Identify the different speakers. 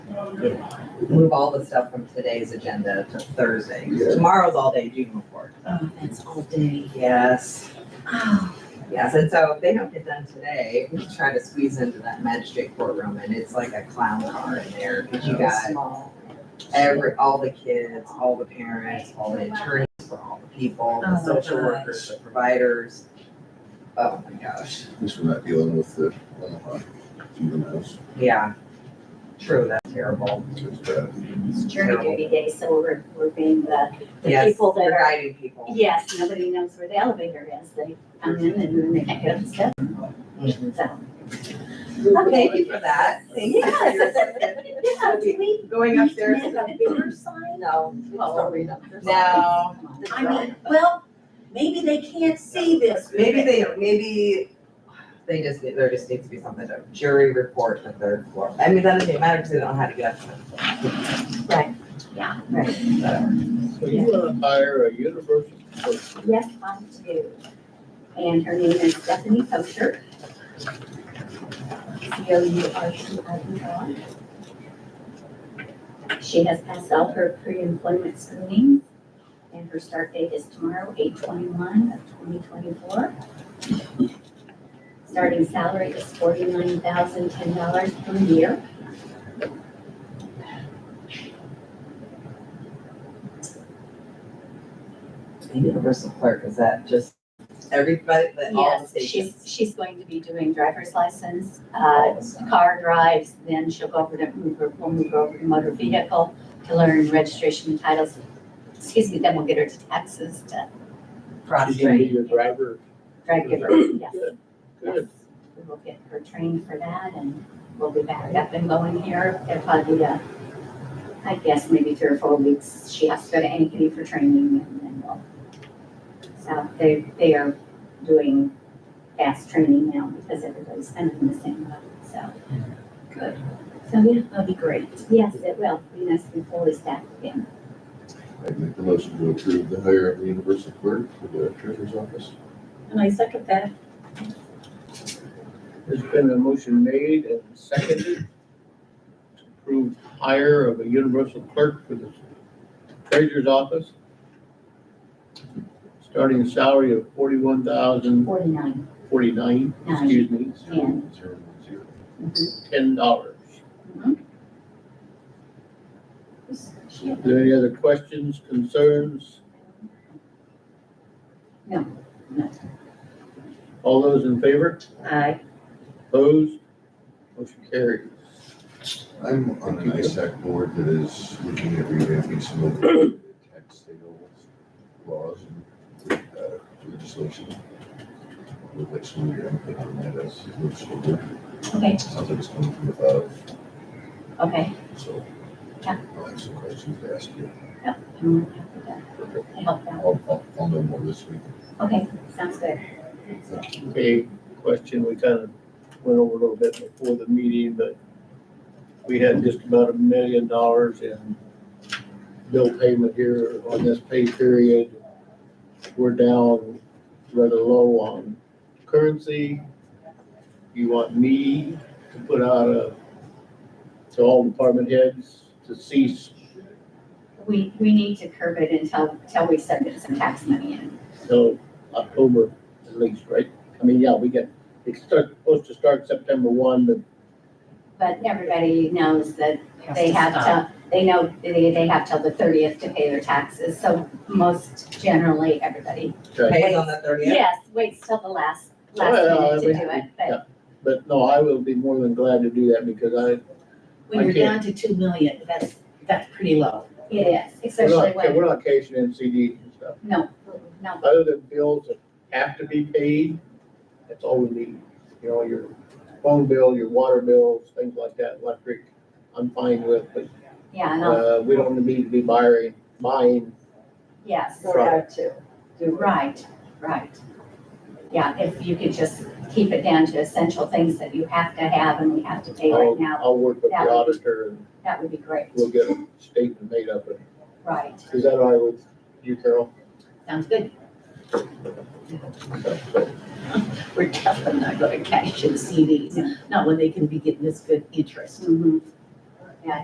Speaker 1: move all the stuff from today's agenda to Thursday. 'cause Tomorrow's all day June report.
Speaker 2: Oh, that's all day.
Speaker 1: Yes,
Speaker 2: Oh,
Speaker 1: yes, and so if they don't get done today, we try to squeeze into that magistrate courtroom and it's like a clown car in there. Cause you got
Speaker 2: small.
Speaker 1: every, all the kids, all the parents, all the attorneys for all the people, the
Speaker 2: Oh,
Speaker 1: social
Speaker 2: gosh.
Speaker 1: workers, the providers. Oh my gosh,
Speaker 3: At least we're not dealing with the Omaha juveniles.
Speaker 1: yeah. True, that's terrible.
Speaker 3: It's bad.
Speaker 2: It's jury duty day, so we're, we're being the, the
Speaker 1: Yes,
Speaker 2: people that
Speaker 1: We're
Speaker 2: are,
Speaker 1: guiding people.
Speaker 2: yes, nobody knows where the elevator is. They come in and then they can't get up the steps,
Speaker 1: Mhm.
Speaker 2: so.
Speaker 1: Thank you for that. Thank you for your assistance.
Speaker 2: Yeah, do we
Speaker 1: Going
Speaker 2: need to
Speaker 1: upstairs
Speaker 2: make
Speaker 1: is
Speaker 2: a bigger sign?
Speaker 1: No.
Speaker 2: Well,
Speaker 1: No.
Speaker 2: I mean, well, maybe they can't see this.
Speaker 1: Maybe they, maybe they just, need- there just needs to be something, a jury report for third floor. I mean, that doesn't matter because they don't know how to get up.
Speaker 2: Right, yeah, right.
Speaker 4: So you wanna hire a universal person?
Speaker 2: Yes, I do. And her name is Stephanie Kosher. C O U R C I E R. She has passed all her pre-employment screenings, and her start date is tomorrow, eight twenty-one of twenty twenty-four. Starting salary is forty-nine thousand ten dollars per year.
Speaker 1: The universal clerk, is that just everybody, that all the
Speaker 2: Yes,
Speaker 1: stations?
Speaker 2: she's, she's going to be doing driver's license,
Speaker 1: all
Speaker 2: uh,
Speaker 1: the stuff?
Speaker 2: car drives, then she'll go over to, move her- we'll move her over to motor vehicle to learn registration and titles. Excuse me, then we'll get her to taxes, to
Speaker 1: Cross
Speaker 4: She's gonna be
Speaker 1: training.
Speaker 4: your driver.
Speaker 2: drive giver, yes.
Speaker 4: Good,
Speaker 2: Yes,
Speaker 4: good.
Speaker 2: we will get her trained for that and we'll be back up and going here. There'll probably be a, I guess, maybe three or four weeks. She has to go to Ankeny for training and then we'll. So they, they are doing fast training now because everybody's kind of in the same boat, so. Good. So yeah, that'll be great. Yes, it will. Be nice to be fully staffed again.
Speaker 3: I'd make the motion to approve the hire of the universal clerk for the treasurer's office.
Speaker 5: And I second that.
Speaker 4: There's been a motion made and seconded to approve hire of a universal clerk for the treasurer's office. Starting salary of forty-one thousand
Speaker 2: Forty-nine,
Speaker 4: forty-nine,
Speaker 2: nine,
Speaker 4: excuse me,
Speaker 3: Zero, zero, zero.
Speaker 4: ten dollars.
Speaker 2: She-
Speaker 4: Are there any other questions, concerns?
Speaker 2: No, no.
Speaker 4: All those in favor?
Speaker 2: I,
Speaker 4: Opposed? Motion carries.
Speaker 3: I'm on an ISAC board that is looking at revamping some of the tax sales laws and uh, legislation. Would like some of your input on that as it moves forward.
Speaker 2: okay,
Speaker 3: Sounds like it's coming from above,
Speaker 2: okay.
Speaker 3: so.
Speaker 2: Yeah.
Speaker 3: I'll have some questions to ask you.
Speaker 2: I'm happy to- to help out.
Speaker 3: I'll, I'll, I'll know more this week.
Speaker 2: Okay, sounds good.
Speaker 4: Okay, question, we kind of went over a little bit before the meeting, but we had just about a million dollars in bill payment here on this pay period. We're down rather low on currency. You want me to put out a, to all department heads to cease
Speaker 2: We, we need to curb it until, until we start getting some tax money in.
Speaker 4: till October at least, right? I mean, yeah, we get, it's start- supposed to start September one, but
Speaker 2: But everybody knows that they have to, they know they, they have till the thirtieth to pay their taxes, so most generally, everybody.
Speaker 4: uh,
Speaker 1: Pays on the thirtieth?
Speaker 2: Yes, waits till the last, last
Speaker 4: Well,
Speaker 2: minute to
Speaker 4: we-
Speaker 2: do it,
Speaker 4: yeah.
Speaker 2: but
Speaker 4: But no, I will be more than glad to do that because I,
Speaker 5: When you're
Speaker 4: Okay.
Speaker 5: down to two million, that's, that's pretty low.
Speaker 2: it is,
Speaker 4: we're
Speaker 2: especially
Speaker 4: not,
Speaker 2: when,
Speaker 4: we're not cashing in CDs and stuff.
Speaker 2: no, no,
Speaker 4: Other than bills that have to be paid, that's all we need. You know, your phone bill, your water bills, things like that, electric, I'm fine with, but,
Speaker 2: yeah, no,
Speaker 4: uh, we don't need to be buying, buying.
Speaker 2: yes,
Speaker 4: Sort out
Speaker 1: too.
Speaker 2: right, right. Yeah, if you could just keep it down to essential things that you have to have and we have to pay right
Speaker 4: I'll,
Speaker 2: now,
Speaker 4: I'll work with
Speaker 2: That
Speaker 4: the
Speaker 2: would be-
Speaker 4: auditor and
Speaker 2: that would be great,
Speaker 4: Oh. we'll get a statement made up. and-
Speaker 2: right?
Speaker 4: Is that all right with you, Carol?
Speaker 5: Sounds good. We're definitely not gonna cash in CDs, not when they can be getting this good interest.
Speaker 2: Mhm.